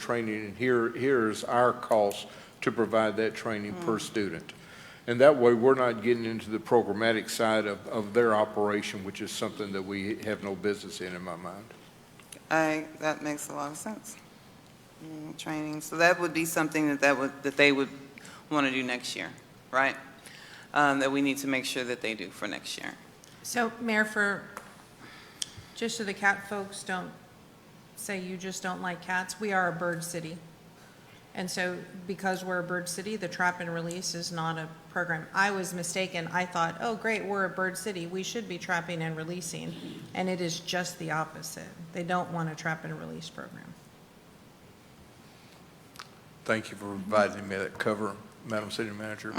training, and here, here is our cost to provide that training per student. And that way, we're not getting into the programmatic side of, of their operation, which is something that we have no business in, in my mind. I, that makes a lot of sense. Mm, Training, so that would be something that that would, that they would want to do next year, right? Um, That we need to make sure that they do for next year. So, Mayor, for, just so the cat folks don't say you just don't like cats, we are a bird city. And so, because we're a bird city, the trap and release is not a program. I was mistaken. I thought, oh, great, we're a bird city. We should be trapping and releasing. And it is just the opposite. They don't want a trap and release program. Thank you for providing me that cover, Madam City Manager.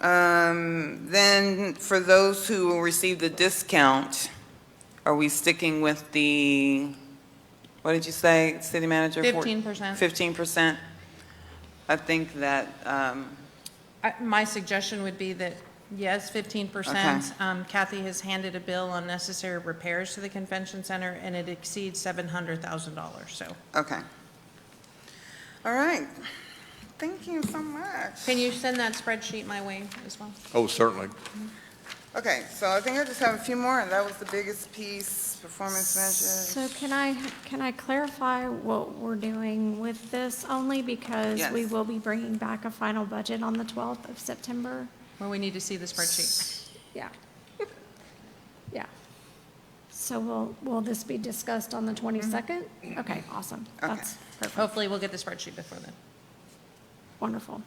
Um, Then, for those who will receive the discount, are we sticking with the, what did you say, city manager? Four- 15%. 15%? I think that, um, I- My suggestion would be that, yes, fifteen percent. Um, Kathy has handed a bill on necessary repairs to the convention center, and it exceeds seven hundred thousand dollars, so. okay. All right. Thank you so much. Can you send that spreadsheet my way as well? Oh, certainly. Okay, so I think I just have a few more, and that was the biggest piece, performance So measures. can I, can I clarify what we're doing with this? Only because we Yes. will be bringing back a final budget on the 12th of September. Well, we need to see the spreadsheet. Yeah. Yeah. So will, will this be discussed on the 22nd? Okay, awesome. That's perfect. Hopefully, we'll get the spreadsheet before then. Wonderful.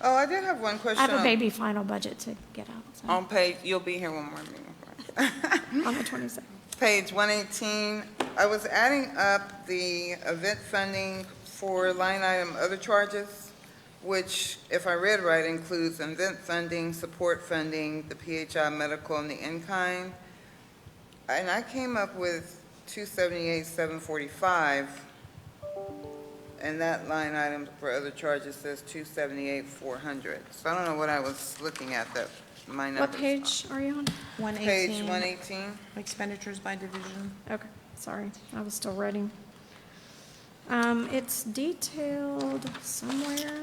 Oh, I did have one I question. have a on- baby final budget to get out, so On page, you'll be here one more meeting. on the 22nd. Page 118, I was adding up the event funding for line item other charges, which, if I read right, includes event funding, support funding, the PHI medical, and the in-kind. And I came up with 278,745, and that line item for other charges says 278,400. So I don't know what I was looking at, that, my numbers. What page are you on? One Page eighteen, 118. expenditures by division. Okay, sorry, I was still writing. Um, it's detailed somewhere,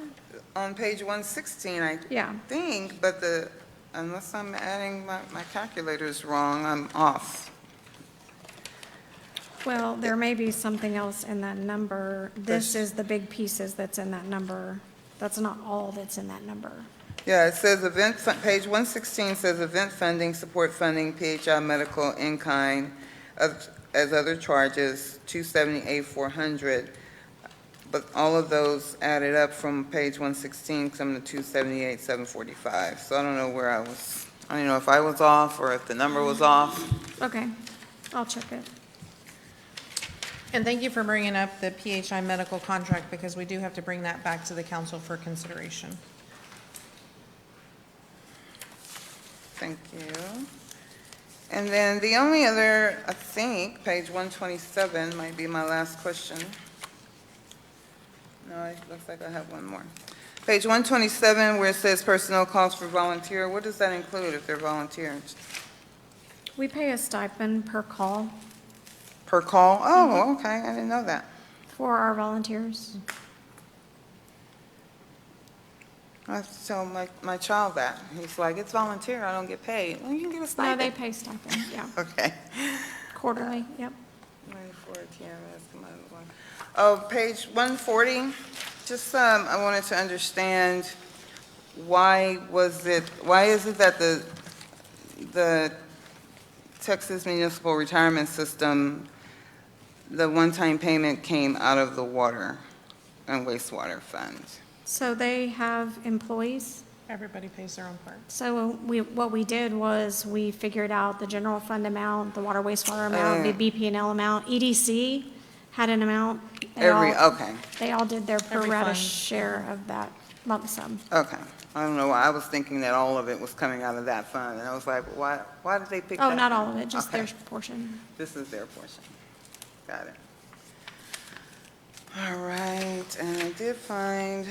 on page 116, I yeah. think, but the, unless I'm adding, my my calculator's wrong, I'm off. Well, there may be something else in that number. This is the big pieces that's in that number. That's not all that's in that number. Yeah, it says event, fu- page 116 says event funding, support funding, PHI medical, in-kind, of- as other charges, 278,400. But all of those added up from page 116 come to 278,745. So I don't know where I was, I don't know if I was off or if the number was off. Okay, I'll check it. And thank you for bringing up the PHI medical contract, because we do have to bring that back to the council for consideration. Thank you. And then the only other, I think, page 127 might be my last question. No, it looks like I have one more. Page 127, where it says personnel costs for volunteer, what does that include if they're volunteers? We pay a stipend per call Per call? Oh, okay, I didn't know that. for our volunteers. I have to tell my, my child that. He's like, it's volunteer, I don't get paid. Well, you can get a No, they stipend. pay stipend, yeah, Okay. Uh, quarterly, yep. 94 TMS, come on, one. Oh, page 140, just, um, I wanted to understand, why was it, why is it that the, the Texas Municipal Retirement System, the one-time payment came out of the water and wastewater fund? So they have employees Everybody pays their own part. So we, what we did was we figured out the general fund amount, the water wastewater amount, the BP and L amount. EDC had an amount. They Every, all- okay, They all did their pro Every rata fund. share of that lump sum. okay. I don't know, why I was thinking that all of it was coming out of that fund, and I was like, why, why did they pick that? Oh, not all of it, just Okay. their portion. This is their portion. Got it. All right, and I did find,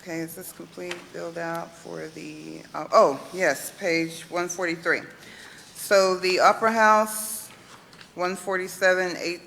okay, is this complete build out for the, oh, oh, yes, page 143. So the Opera House, 147, 8